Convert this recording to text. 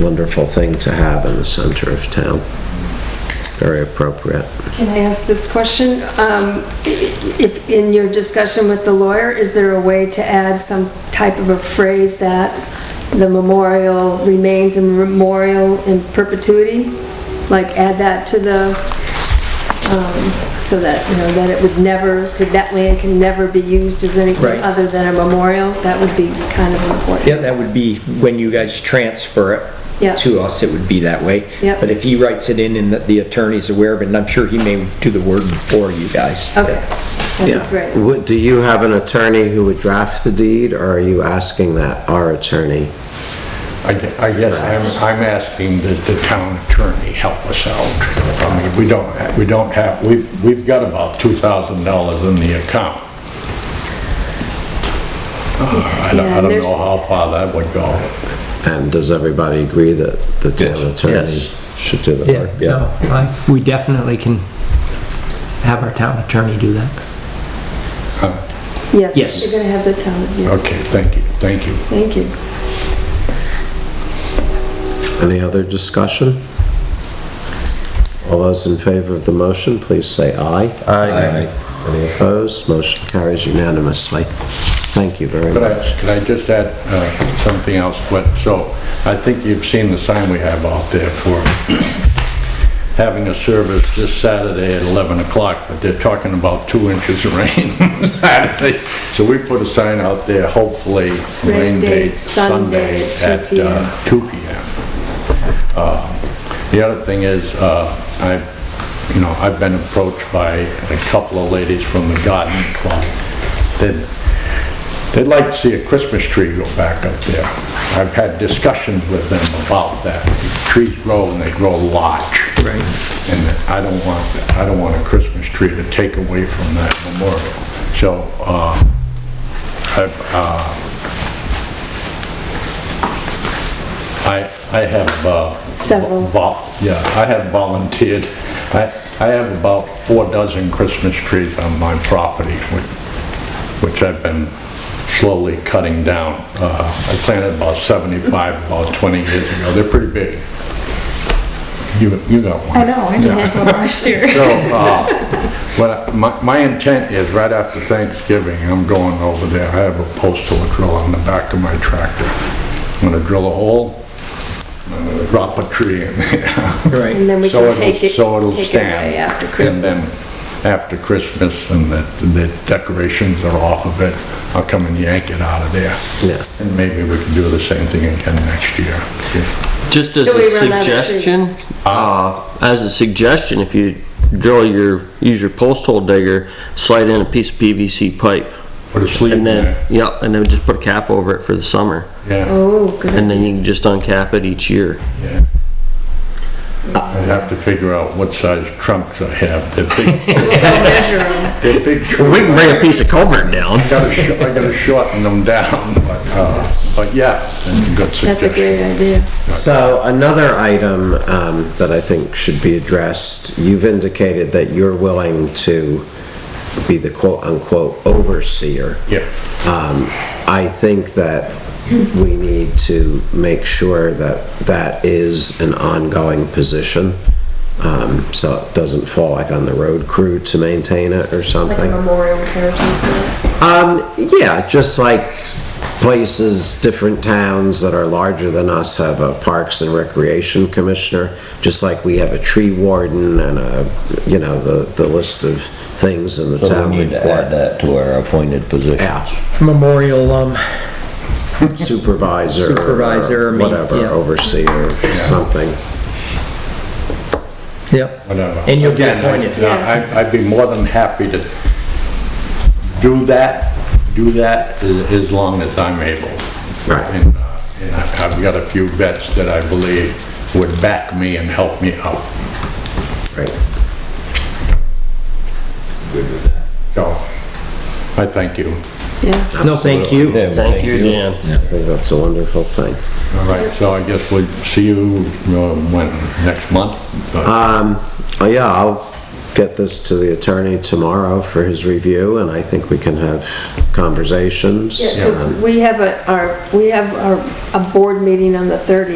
wonderful thing to have in the center of town. Very appropriate. Can I ask this question? Um, i- If, in your discussion with the lawyer, is there a way to add some type of a phrase that the memorial remains a memorial in perpetuity? Like add that to the, um, so that, you know, that it would never, could that land can never be used as anything Right. other than a memorial? That would be kind of important. Yeah, that would be when you guys transfer Yeah. it to us, it would be that way. Yeah. But if he writes it in and that the attorney's aware of it, and I'm sure he may do the wording for you guys. Okay, that'd Yeah. be great. Would- Do you have an attorney who would draft the deed, or are you asking that our attorney? I gue- I guess I'm, I'm asking that the town attorney help us out. I mean, we don't, ha- we don't have, we've, we've got about $2,000 in the account. I don't, Yeah, I don't there's- know how far that would go. And does everybody agree that the town attorney Yes. should do the Yeah, work? no, I, we definitely can have our town attorney do that. Yes. Yes. You're gonna have the town, yeah, Okay, thank you, thank you. thank you. Any other discussion? All those in favor of the motion, please say aye. Aye. Any opposed? Motion carries unanimously. Thank you very Could much. I, could I just add uh, something else? But, so, I think you've seen the sign we have out there for having a service this Saturday at 11 o'clock, but they're talking about two inches of rain Saturday. So we put a sign out there, hopefully, rain date date, Sunday Sunday at 2 at p.m. uh, 2 p.m. The other thing is, uh, I, you know, I've been approached by a couple of ladies from the garden club. They'd, they'd like to see a Christmas tree go back up there. I've had discussions with them about that. Trees grow and they grow large. Right. And I don't want, I don't want a Christmas tree to take away from that memorial. So, uh, I've, uh, I, I have, uh... Several. vol- Yeah, I have volunteered. I, I have about four dozen Christmas trees on my property, which- which I've been slowly cutting down. Uh, I planted about 75, about 20 years ago. They're pretty big. You, you got one. I know, I did one last year. So, uh, what, I- my, my intent is right after Thanksgiving, I'm going over there, I have a postal drill on the back of my tractor. I'm gonna drill a hole, I'm gonna drop a tree in there. And Right. then we So can it'll- take it, So it'll take it stand. away after And Christmas. then, after Christmas, and the, the decorations are off of it, I'll come and yank it out of there. Yeah. And maybe we can do the same thing again next year. Just as Till we a run out of suggestion, trees. Ah. uh, as a suggestion, if you drill your, use your post hole digger, slide in a piece of PVC pipe. Put a sleeve in And there. then, yeah, and then just put a cap over it for the summer. Yeah, Oh, good. And then you can just uncap it each year. yeah. I have to figure out what size trunks I have. They're big, We'll measure 'em. they're big. We can bring a piece of culvert down. I gotta, sh- I gotta shorten them down, but, uh, but yeah, that's a good suggestion. That's a great idea. So another item um, that I think should be addressed, you've indicated that you're willing to be the quote-unquote overseer. Yeah. Um, I think that we need to make sure that that is an ongoing position, um, so it doesn't fall like on the road crew to maintain it or something. memorial heritage. Um, yeah, just like places, different towns that are larger than us have a Parks and Recreation Commissioner, just like we have a tree warden and a, you know, the, the list of things in the So town we need to add report. that to our appointed positions. Yeah, Memorial, um, supervisor. or Supervisor, I mean, Whatever, yeah. overseer, something. yep. whatever. And you'll get Again, I- appointed. yeah, I- I'd be more than happy to do that, do that as as long as I'm able. Right. And uh, and I- I've got a few vets that I believe would back me and help me out. Right. So, I thank you. Yeah. No, thank you. Yeah, well, Thank you, Dan. I think that's a wonderful thing. All right, so I guess we'll see you, uh, when, next month? Uh, Um, oh, yeah, I'll get this to the attorney tomorrow for his review, and I think we can have conversations. Yeah, because we have a, our, we have our, a board meeting on the 30th.